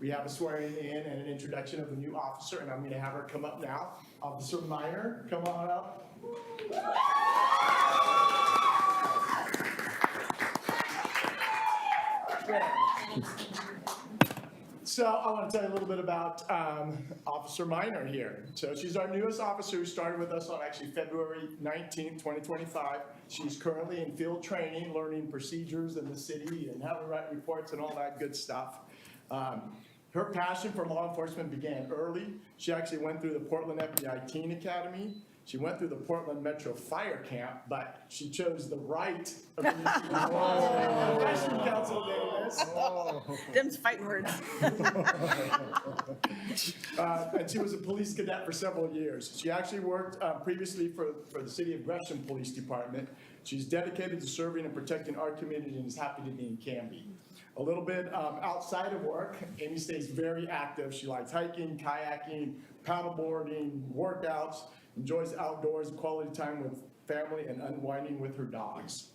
We have a swearing in and an introduction of the new officer, and I'm going to have her come up now. Officer Minor, come on up. So I want to tell you a little bit about um, Officer Minor here. So she's our newest officer who started with us on actually February 19th, 2025. She's currently in field training, learning procedures in the city and how to write reports and all that good stuff. Um, Her passion for law enforcement began early. She actually went through the Portland FBI Teen Academy. She went through the Portland Metro Fire Camp, but she chose the right of the Advisory Council Davis. Them's fighting words. Uh, and she was a police cadet for several years. She actually worked uh, previously for, for the City of Gresham Police Department. She's dedicated to serving and protecting our community and is happy to be in Canby. A little bit um, outside of work, Amy stays very active. She likes hiking, kayaking, paddleboarding, workouts, enjoys outdoors, quality time with family, and unwinding with her dogs.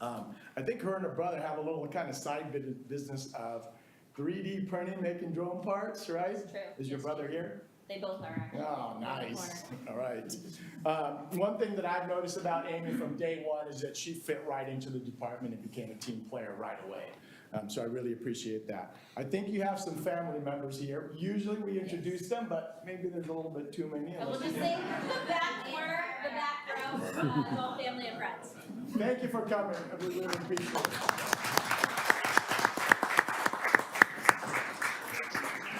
Um, I think her and her brother have a little kind of side bit- business of 3D printing, making drone parts, right? True. Is your Yes. brother here? They both are actually. Oh, on the nice. corner. All right. Um, One thing that I've noticed about Amy from day one is that she fit right into the department and became a team player right away. Um, So I really appreciate that. I think you have some family members here. Usually we introduce them, but maybe there's a little bit too many. And we'll unless just you- say the back corner, the back row, uh, is all family and friends. Thank you for coming. I really appreciate it.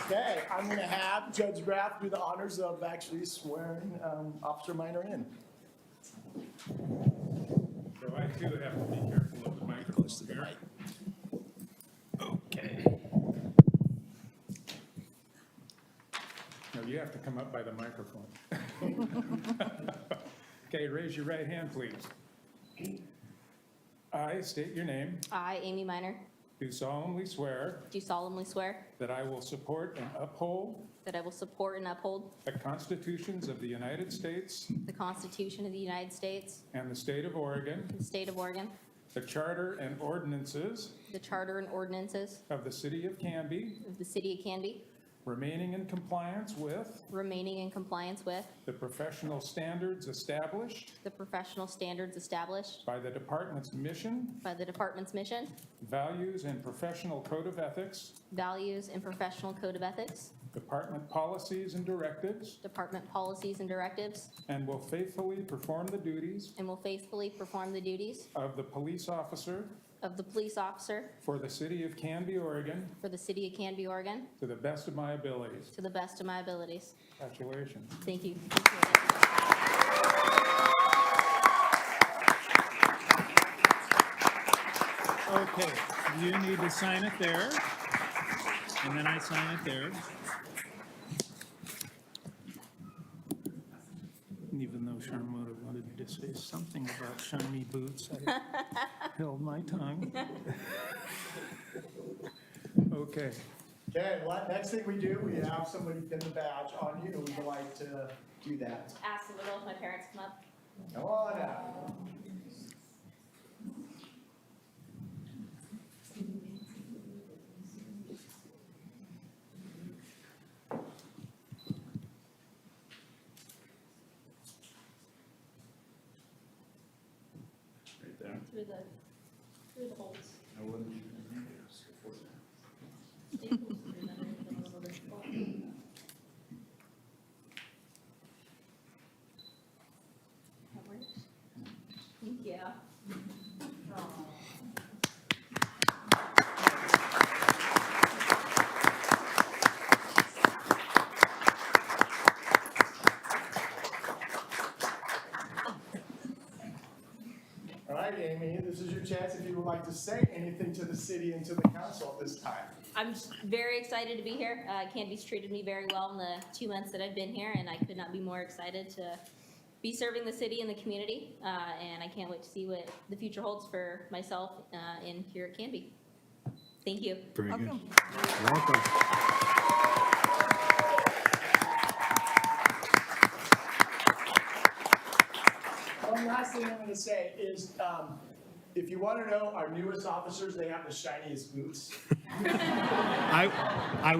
Okay, I'm going to have Judge Graff do the honors of actually swearing um, Officer Minor in. So I too have to be careful of the microphone here. Okay. No, you have to come up by the microphone. Okay, raise your right hand, please. I state your name, I, Amy Minor, do solemnly swear do solemnly swear that I will support and uphold that I will support and uphold the constitutions of the United States the Constitution of the United States, and the state of Oregon, the state of Oregon, the charter and ordinances the charter and ordinances of the city of Canby, of the city of Canby, remaining in compliance with remaining in compliance with the professional standards established the professional standards established by the department's mission, by the department's mission, values, and professional code of ethics, values, and professional code of ethics, department policies and directives, department policies and directives, and will faithfully perform the duties and will faithfully perform the duties of the police officer of the police officer for the city of Canby, Oregon, for the city of Canby, Oregon, to the best of my abilities. to the best of my abilities. Congratulations. Thank you. Okay, you need to sign it there, and then I sign it there. And Even though Sharmoda wanted me to say something about shiny boots, I held my tongue. Okay, Okay, well, next thing we do, we have somebody pin the badge on you, would you like to do that? Ask the little if my parents come up. Come on out. Right there. Through the, through the holes. I wouldn't. Staples through them, and then a little bit more. That works? Thank you. Aw. All right, Amy, this is your chance if you would like to say anything to the city and to the council at this time. I'm just very excited to be here. Uh, Candy's treated me very well in the two months that I've been here, and I could not be more excited to be serving the city and the community. Uh, and I can't wait to see what the future holds for myself uh, and here at Canby. Thank you. Very good. Welcome. Welcome. One last thing I'm gonna say is, um, if you wanna know our newest officers, they have the shiniest boots. I, I